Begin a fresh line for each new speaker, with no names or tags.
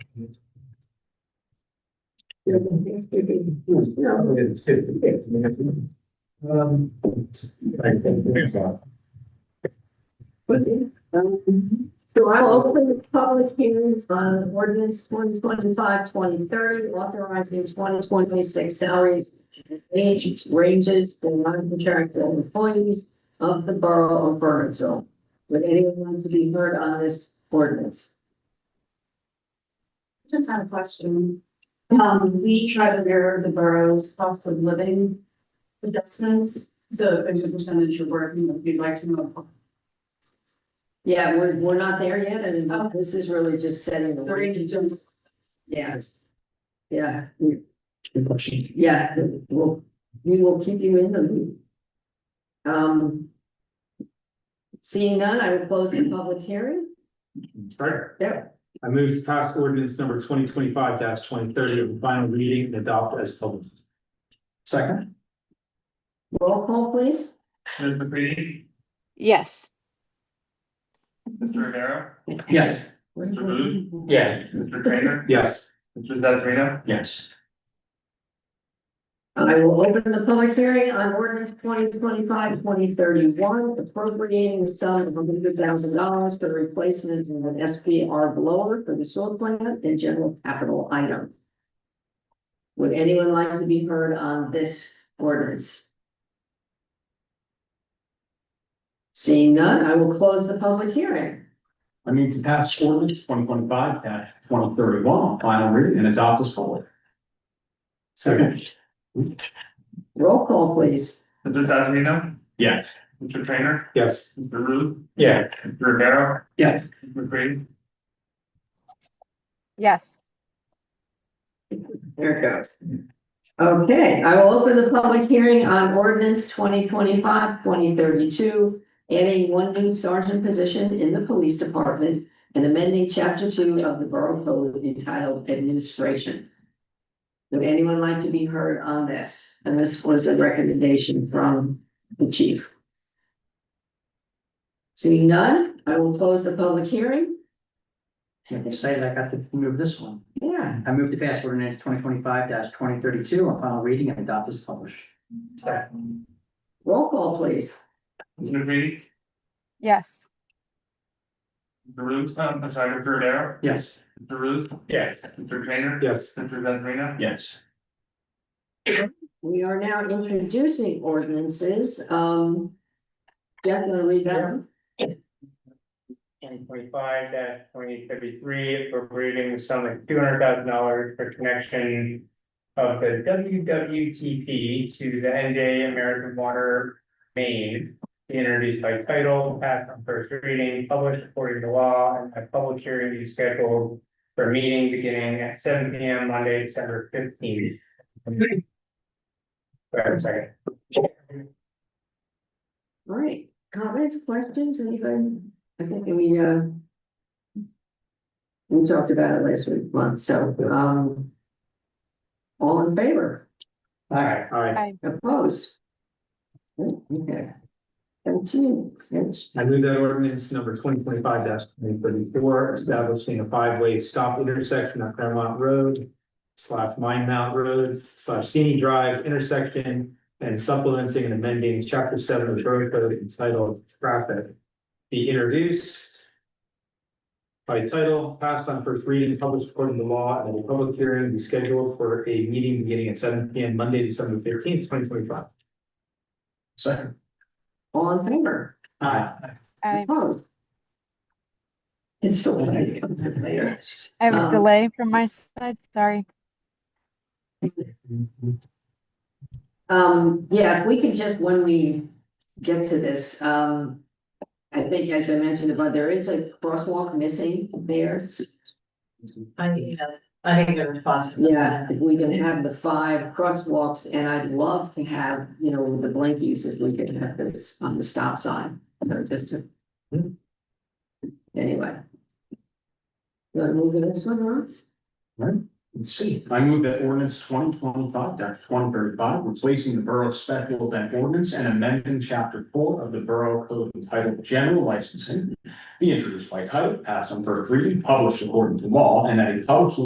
Um. I think there's a.
Okay, um, So I will open the public hearing on ordinance 2025 2030, authorizing twenty twenty-six salaries and age ranges for non-contractual employees of the borough of Burnsville. Would anyone like to be heard on this ordinance?
Just had a question. Um, we try to mirror the borough's cost of living adjustments. So if there's a percentage you're working, with, we'd like to know.
Yeah, we're, we're not there yet, and this is really just setting the
The range
ranges.
is doing
Yes. Yeah. we- Yeah, we'll, we will keep you in the loop. Um. Seeing none, I will close the public hearing.
Sorry.
Yeah.
I move to pass ordinance number twenty twenty-five twenty thirty of the final reading and adopt as published. Second.
Roll call, please.
Ms. McCready,
yes.
Mr. Rivera,
Yes.
Mr. Booth.
Yeah.
Mr. Trainer,
Yes.
Mr. Zazarino,
Yes.
I will open the public hearing on ordinance 2025-2031, appropriating the sum of hundred thousand dollars for the replacement of an SPR blower for the soil plant and general capital items. Would anyone like to be heard on this ordinance? Seeing none, I will close the public hearing.
I move to pass ordinance twenty twenty five dash twenty thirty one on final reading and adopt as published.
Second.
Roll call, please.
Mr. Zazarino.
Yes.
Mr. Trainer,
Yes.
Mr. Booth,
Yeah.
Mr. Rivera,
Yes.
Ms. McCready,
Yes.
There it goes. Okay, I will open the public hearing on ordinance 2025-2032, adding one new sergeant position in the police department and amending chapter two of the borough code entitled administration. Would anyone like to be heard on this? And this was a recommendation from the chief. Seeing none, I will close the public hearing.
I'm excited I got to move this one.
Yeah,
I moved to pass ordinance twenty twenty-five twenty thirty-two on final reading and adopt as published.
roll call please.
Mr. McCready,
Yes.
Mr. Booth, um, I'm sorry, Mr. Rivera,
Yes.
Mr. Booth,
Yes.
Mr. Trainer.
Yes.
Mr. Zazarino.
Yes.
We are now introducing ordinances, um. Jeff, you wanna read that? one?
twenty twenty-five twenty thirty-three, appropriating the sum of two hundred thousand dollars for connection of the WWTP to the NJ American Water Main, be introduced by title, passed on first reading, published according to law, and a public hearing is scheduled for a meeting beginning at seven P M Monday, December fifteenth. Wait a second.
All right, comments, questions, anything? I think we, uh. We talked about it last week, once, so, um. All in favor,
All right.
All right.
opposed? Oh, Okay. Seventeen, yes.
I move that ordinance number twenty twenty-five twenty thirty-four, establishing a five-way stop intersection on Claremont Road. Slash Mine Mount Road slash Sini Drive intersection and supplementing and amending chapter seven of the road code entitled traffic. Be introduced. By title, passed on first reading, published according to law, and a public hearing be scheduled for a meeting beginning at seven P M, Monday, December fifteenth, twenty twenty-five.
Second.
all in favor,
Aye.
I
opposed? It's so late, it comes in later.
I have
Um,
a delay from my side, sorry.
Um, yeah, if we could just, when we get to this, um. I think as I mentioned above, there is a crosswalk missing there.
I need a, I need a response. from
Yeah,
that.
if we can have the five crosswalks and I'd love to have, you know, the blank uses, we could have this on the stop sign, so just to. Anyway. You wanna move to this one, Ross?
Let's see. I move that ordinance twenty twenty five twenty thirty five, replacing the borough special event ordinance and amending chapter four of the borough code entitled general licensing. Be introduced by title, passed on first reading, published according to law, and that a public